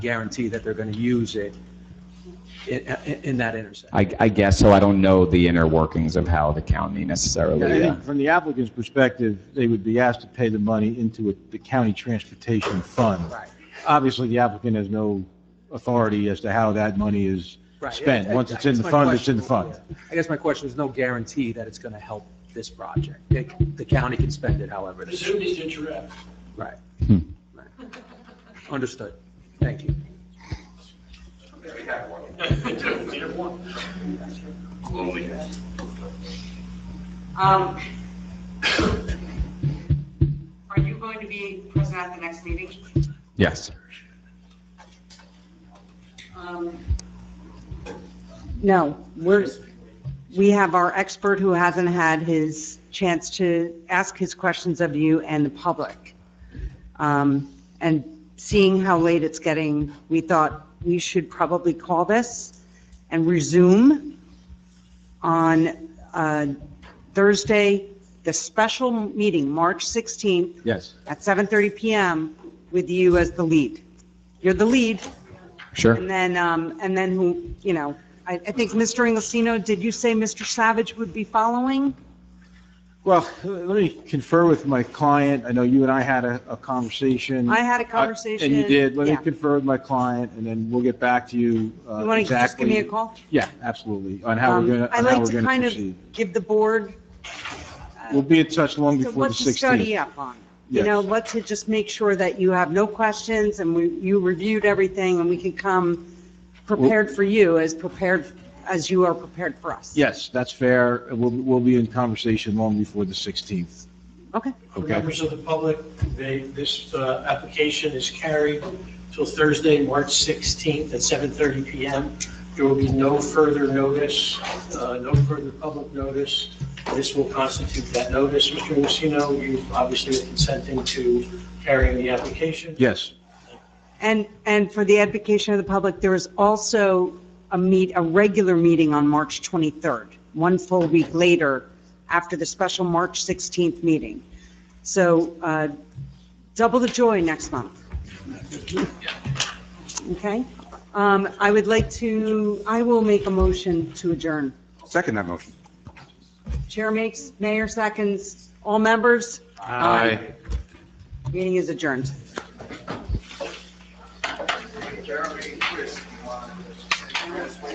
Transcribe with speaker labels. Speaker 1: guarantee that they're going to use it in, in- in that intersection.
Speaker 2: I, I guess so. I don't know the inner workings of how the county
Speaker 3: Yeah, I
Speaker 2: necessarily. uh,
Speaker 3: think From the applicant's perspective, they would be asked to pay the money into a- the county transportation fund.
Speaker 1: Right,
Speaker 3: Obviously, the applicant has no authority as to how that money is
Speaker 1: right.
Speaker 3: spent.
Speaker 1: I- I-
Speaker 3: Once it's in
Speaker 1: I
Speaker 3: the
Speaker 1: guess my
Speaker 3: fund, it's in the
Speaker 1: question-
Speaker 3: fund.
Speaker 1: I guess my question is no guarantee that it's going to help this project. It- The county can spend it however they choose.
Speaker 4: Assuming that you're at.
Speaker 1: Right.
Speaker 2: Hmm.
Speaker 1: Right. Understood. Thank you.
Speaker 5: Um, Are you going to be present at the next meeting?
Speaker 2: Yes.
Speaker 5: Um,
Speaker 6: No, we're, we have our expert who hasn't had his chance to ask his questions of you and the public. Um, And seeing how late it's getting, we thought we should probably call this and resume on uh, Thursday, the special meeting, March 16th,
Speaker 3: Yes.
Speaker 6: at 7:30 PM with you as the lead. You're the lead.
Speaker 2: Sure.
Speaker 6: And then, um, and then who, you know, I, I think Mr. Inglesino, did you say Mr. Savage would be following?
Speaker 3: Well, let me confer with my client. I know you and I had a, a conversation.
Speaker 6: I had a conversation.
Speaker 3: And you did. Let me
Speaker 6: Yeah.
Speaker 3: confer with my client, and then we'll get back to you uh,
Speaker 6: You want to just
Speaker 3: exactly.
Speaker 6: give me a call?
Speaker 3: Yeah, absolutely, on how
Speaker 6: Um,
Speaker 3: we're going to,
Speaker 6: I
Speaker 3: on how
Speaker 6: like
Speaker 3: we're
Speaker 6: to
Speaker 3: going to
Speaker 6: kind
Speaker 3: proceed.
Speaker 6: of give the board.
Speaker 3: We'll be in touch long
Speaker 6: So
Speaker 3: before the
Speaker 6: what's the
Speaker 3: 16th.
Speaker 6: study up on? You
Speaker 3: Yes.
Speaker 6: know, let's just make sure that you have no questions and we, you reviewed everything and we can come prepared for you as prepared, as you are prepared for us.
Speaker 3: Yes, that's fair. We'll, we'll be in conversation long before the 16th.
Speaker 6: Okay.
Speaker 4: For
Speaker 3: Okay.
Speaker 4: members of the public, they, this uh, application is carried till Thursday, March 16th at 7:30 PM. There will be no further notice, uh, no further public notice. This will constitute that notice. Mr. Lucino, you obviously are consenting to carrying the application.
Speaker 3: Yes,
Speaker 6: And, and for the education of the public, there is also a meet, a regular meeting on March 23rd, one full week later, after the special March 16th meeting. So uh, double the joy next month. Okay? Um, I would like to, I will make a motion to adjourn.
Speaker 7: Second that motion.
Speaker 6: Chair makes, mayor seconds, all members? Aye. Meeting is adjourned.
Speaker 4: Jeremy, Chris.